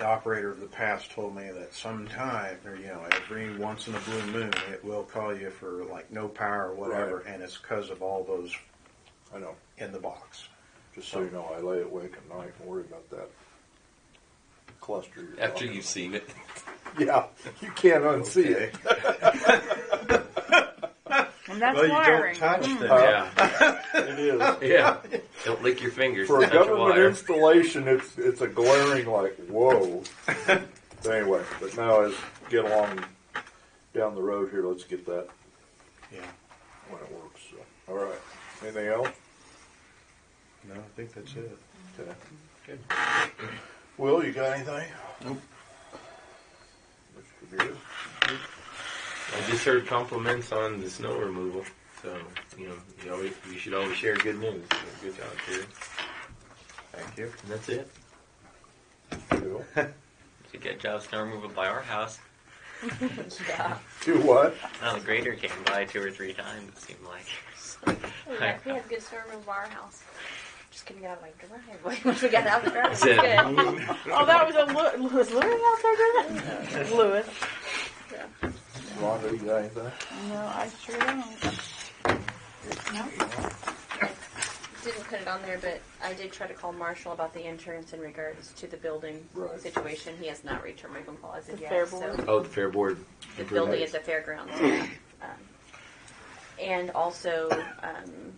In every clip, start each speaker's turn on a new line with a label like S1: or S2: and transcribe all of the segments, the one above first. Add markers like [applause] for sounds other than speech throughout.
S1: operator of uh, the past told me that sometime, or you know, every once in a blue moon, it will call you for like no power or whatever,
S2: Right.
S1: and it's because of all those
S2: I know.
S1: in the box.
S2: Just so you know, I lay awake at night and worry about that cluster. You're
S3: After
S2: talking
S3: you've seen it.
S2: about. yeah, you can't unsee [laughs] it.
S4: And that's
S1: well, you
S4: wiring. Hmm.
S1: don't touch them.
S2: Uh, [laughs]
S3: Yeah.
S2: It is.
S3: Yeah. Don't lick your
S2: [laughs]
S3: fingers.
S2: For a
S3: touch
S2: government
S3: wire.
S2: installation, it's it's a glaring like [laughs] whoa. But anyway, but now as get along down the road here, let's get that
S1: Yeah.
S2: when it works. So. All right. Anything else?
S1: No, I think that's it.
S2: Okay. Will, you got anything? Nope. Mr. Beard?
S3: I just heard compliments on the snow removal. So, you know, you, always, you should always share good news. So Good job, Terry.
S1: Thank you.
S3: And that's it.
S2: Bill?
S5: To get Job Snow removal by our house,
S4: Yeah.
S2: Do what?
S5: now the grader came by two or three times, it seemed like.
S6: We have, we have good service of our house. Just couldn't get out of my [laughs] driveway once we got out of the driveway.
S3: Is
S6: It's
S3: it-
S6: [laughs] good.
S4: Oh, that was a Lew- Lewis. Lewis out there doing that? Lewis.
S2: Rhonda, you got anything?
S4: No, I sure don't.
S6: Didn't put it on there, but I did try to call Marshall about the insurance in regards to the building
S2: Right.
S6: situation. He has not reached a wake call as of
S4: The
S6: yet.
S4: fair
S6: so
S4: board.
S3: Oh, the fair board.
S6: the
S3: improvement.
S6: building at the fairgrounds. yeah. um, and also, um,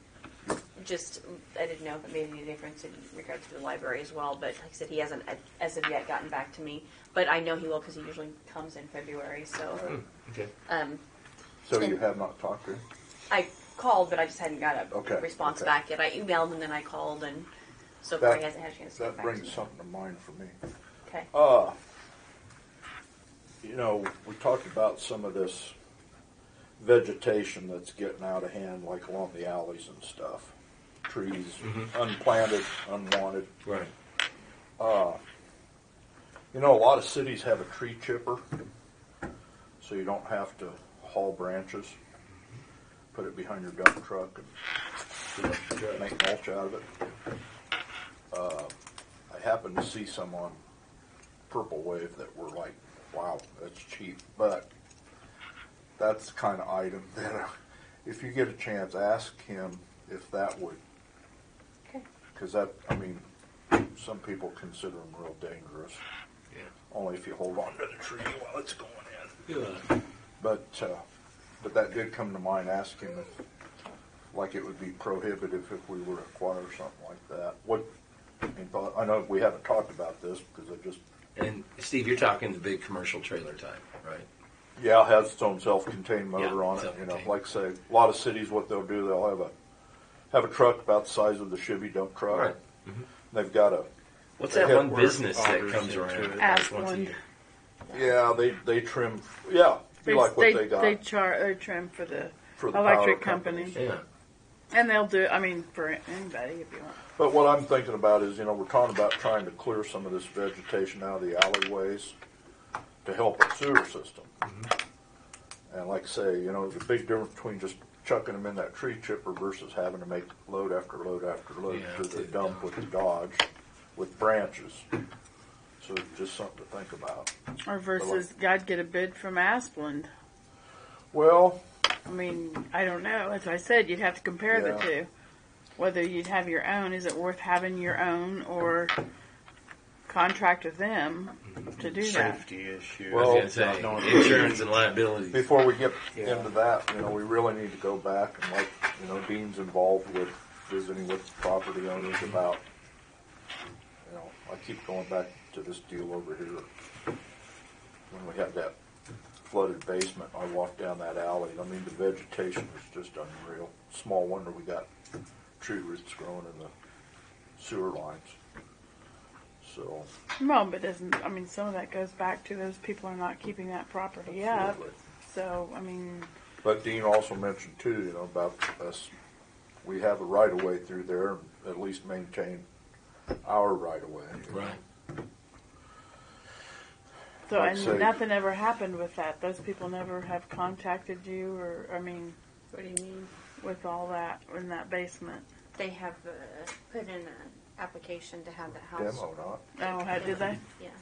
S6: just I didn't know if it made any difference in regards to the library as well. But like I said, he hasn't uh, as of yet gotten back to me. But I know he will because he usually comes in February. So
S3: Okay.
S6: um,
S2: So you have not talked to him?
S6: I called, but I just hadn't got a
S2: Okay,
S6: response
S2: okay.
S6: back yet. I emailed and then I called, and so
S2: That-
S6: far he hasn't had a chance to
S2: That
S6: get back to
S2: brings
S6: me.
S2: something to mind for me.
S6: Okay.
S2: Uh, you know, we talked about some of this vegetation that's getting out of hand, like along the alleys and stuff. Trees, unplanted, unwanted.
S3: Right.
S2: You know, a lot of cities have a tree chipper, so you don't have to haul branches, put it behind your dump truck, and make mulch out of it. Uh, I happened to see some on Purple Wave that were like, "Wow, that's cheap," but that's the kind of item [laughs] that, uh, if you get a chance, ask him if that would,
S6: Okay.
S2: because that, I mean, some people consider them real dangerous.
S3: Yeah.
S2: Only if you hold on to the tree while it's going in.
S3: Yeah.
S2: But, uh, but that did come to mind, asking if, like, it would be prohibitive if we were to acquire something like that. What, and thought- I know we haven't talked about this, because it just,
S3: And Steve, you're talking the big commercial trailer type, right?
S2: yeah, it has its own self-contained motor
S3: Yeah,
S2: on it, you know,
S3: self-contained.
S2: like, say, a lot of cities, what they'll do, they'll have a, have a truck about the size of the Chevy dump truck.
S3: Right.
S2: They've got a,
S3: What's
S2: They
S3: that
S2: have
S3: one
S2: work
S3: business that
S1: offers
S3: comes
S1: into
S3: around
S1: it.
S3: like once a
S4: Aspen.
S3: year?
S2: yeah, they, they trim, yeah, be like what they
S4: They
S2: got
S4: char, they trim for the
S2: for the power
S4: electric
S2: company.
S4: company.
S3: Yeah.
S4: And they'll do, I mean, for anybody if you want.
S2: But what I'm thinking about is, you know, we're talking about trying to clear some of this vegetation out of the alleyways to help our sewer system. And like I say, you know, the big difference between just chucking them in that tree chipper versus having to make load after load after load
S3: Yeah,
S2: to the
S3: to the
S2: dump
S3: dump.
S2: with the Dodge, with branches. So just something to think about.
S4: Or versus, God, get a bid from Asplund.
S2: Well,
S4: I mean, I don't know. As I said, you'd have to compare the
S2: Yeah.
S4: two. Whether you'd have your own, is it worth having your own or contract with them to do that?
S1: Safety issue.
S2: Well,
S3: I was going
S1: no,
S3: to say, insurance and liabilities.
S2: before we get
S1: Yeah.
S2: into that, you know, we really need to go back and like, you know, Dean's involved with visiting with property owners about, you know, I keep going back to this deal over here. When we had that flooded basement, I walked down that alley, and I mean, the vegetation was just unreal. Small wonder we got tree roots growing in the sewer lines. So,
S4: Well, but doesn't I mean some of that goes back to those people are not keeping that property up.
S2: absolutely.
S4: So I mean,
S2: But Dean also mentioned too, you know, about us, we have a right of way through there, and at least maintain our right of way.
S3: Right.
S4: so
S2: Like
S4: and
S2: say-
S4: nothing ever happened with that. Those people never have contacted you, or I mean,
S6: What do you mean?
S4: with all that in that basement.
S6: They have uh, put in an application to have that house.
S2: Demo not.
S4: Oh, how did they?
S6: Yeah.